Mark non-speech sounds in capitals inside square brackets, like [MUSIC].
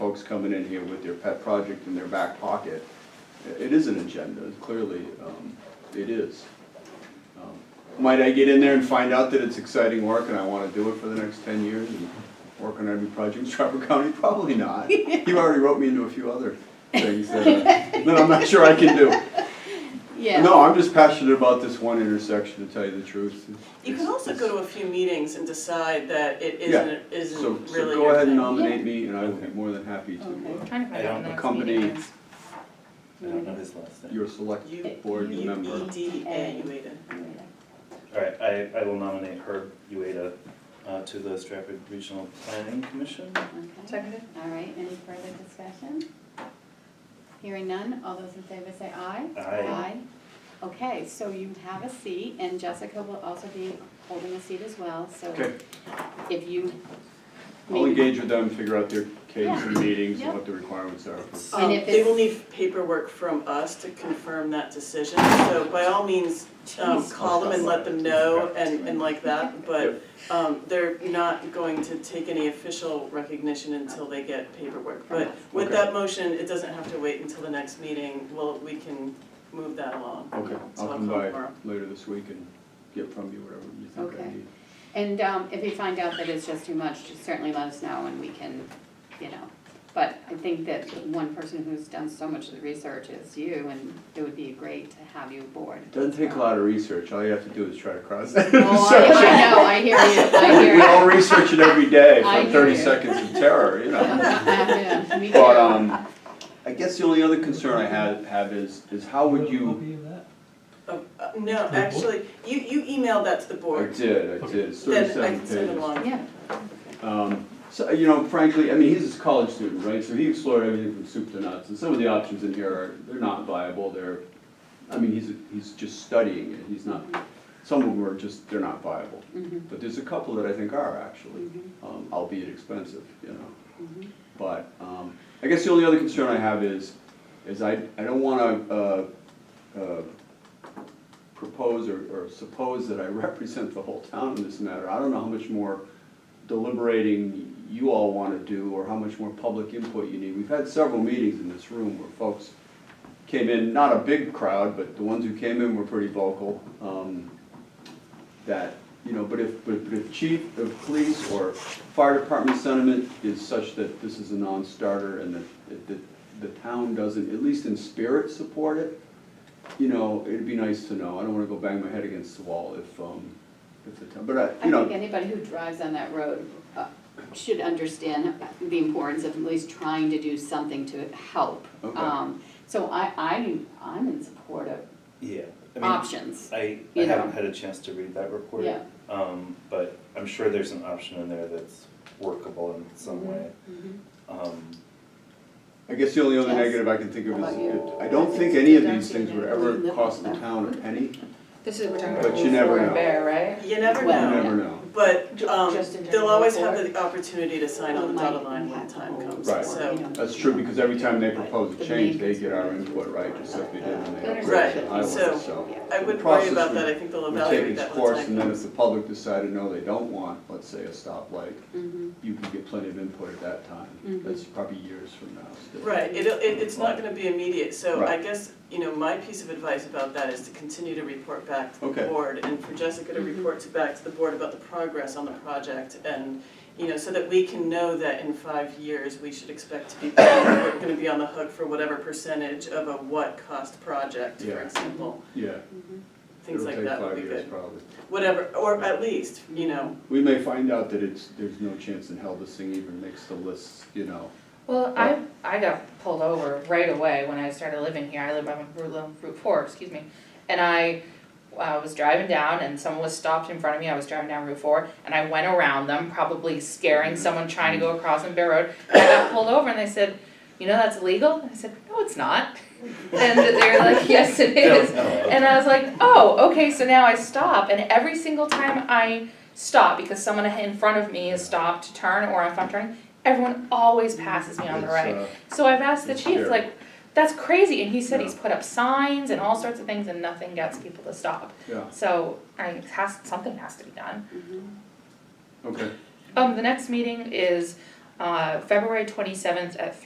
folks coming in here with their pet project in their back pocket. I- It is an agenda, clearly, um, it is. Um, Might I get in there and find out that it's exciting work and I wanna do it for the next ten years and work on every project in Stratford County? [LAUGHS] Probably not. You already wrote me into a few other things [LAUGHS] that, that I'm not sure I can do. Yeah. No, I'm just passionate about this one intersection, to tell you the truth. You could also go to a few meetings and decide that it Yeah, isn't, So, isn't so really go your ahead and thing. nominate me, and I will be more than happy to, uh, Trying to find out when the next meeting Accompany- is. I don't know his last name. your select You- board U member. E D A, you made it. All right, I, I will nominate Herb Ueda uh, to the Stratford Regional Planning Commission. Okay. Seconded? All right, any further discussion? Hearing none, all those in favor say aye. Aye. Okay, so you have a seat, and Jessica will also be holding a seat as well, so Okay, if you. I'll engage with them, figure out their case and meetings Yeah. and what the requirements are. for- And Um, if They will it's- need paperwork from us to confirm that decision, so by all means, um, Jeez. call them and let them know and, and like that, but, um, they're not going to take any official recognition until they get paperwork. From But us. with Okay. that motion, it doesn't have to wait until the next meeting, well, we can move that along. Okay, So I'll I'll come call by tomorrow. later this week and get from you whatever you think I Okay. need. And um, if you find out that it's just too much, just certainly let us know and we can, you know. But I think that one person who's done so much of the research is you, and it would be great to have you aboard. It Doesn't take a lot of research, all you have to do is try to cross that [LAUGHS] Oh, I I intersection. know, I hear you, I We hear we you. all research it every day I for hear thirty you. seconds of terror, you know? [LAUGHS] Yeah, me But, too. um, I guess the only other concern I have, have is, is how would you, Oh, uh, No, actually, you, you emailed that to the I board, did, I did, it's then I thirty-seven can send it pages. along. Yeah, Um, so, you know, frankly, I mean, he's a college student, right, so he explored everything from soup to nuts, and some of the options in here are, they're not viable, they're, I mean, he's, he's just studying it, he's not, some of them are just, they're not viable. mhm, But there's a couple that I think are actually, Mhm. um, albeit expensive, you know. mhm. But um, I guess the only other concern I have is, is I, I don't uh, want to propose or or suppose that I [LAUGHS] represent the whole town in this matter. I don't know how much more deliberating you all want to do or how much more public input you need. We've had several meetings in this room where folks came in, not a big crowd, but the ones who came in were pretty vocal. um, That, you know, but if, but but if chief of police or fire department sentiment is such that this is a non-starter and that- that, that the town doesn't, at least in spirit, support it, you know, it'd be nice to know. I don't wanna go bang my head against the wall if, um, if the town, but I, I you know. think anybody who drives on that road uh, should understand the importance of at least trying to do something to help. Okay. Um, So I, I, I'm in support of Yeah. I mean, options. I, I you know. haven't had a chance to read that report. Yeah. Um, but I'm sure there's an option in there that's workable in some way. Mhm. Um, I guess the only other Yes. negative I can think of How is, about you? I don't think any of these things would ever cost the town a penny. This is, we're talking But about you never Fort know. Bear, right? You never You Well, know. never know. But Ju- um, just in terms they'll of always the have the opportunity to sign on the dotted line when the time comes, Right. so. That's true, because every time they propose a change, they get our input, right, just like they did when they upgraded the highway, so I wouldn't worry process about that, would- I think they'll would take evaluate its that when course, and the then time if comes. the public decided, no, they don't want, let's say, a stoplight, Mhm. you can get plenty of input at that time. Mhm. That's probably years from now still. Mm-hmm. Right, it'll, it, it's not gonna be immediate, so I Right. guess, you know, my piece of advice about that is to continue to report back to the Okay. board and for Jessica Mm-hmm. to report to, back to the board about the progress on the project and, you know, so that we can know that in five years, we should expect to be, we're gonna be on the hook for whatever percentage of a what-cost project, for Yeah. example, Yeah, things it'll like take that would five be years good. probably. whatever, or at least, you know, We may find out that it's, there's no chance in hell this thing even makes the list, you know. Well, I, I got pulled over right away when I started living here, I live on Route, Route four, excuse me. And I, I was driving down and someone was stopped in front of me, I was driving down Route four, and I went around them, probably scaring Mm-hmm. someone trying to go across on Bear Road. And I got pulled over and they said, you know that's illegal? And I said, no, it's not. [LAUGHS] And they were like, yes, it is. And I was like, oh, okay, so now I stop, and every single time I stop, because someone in front of me is stopped to turn, or if I'm turning, everyone always passes me on the It's, right. uh, So I've asked the it's chief, scary. like, that's crazy, and he said Yeah. he's put up signs and all sorts of things, and nothing gets people to stop. Yeah, So I, it has, something has to be done. okay. Um, the next meeting is, uh, February twenty-seventh at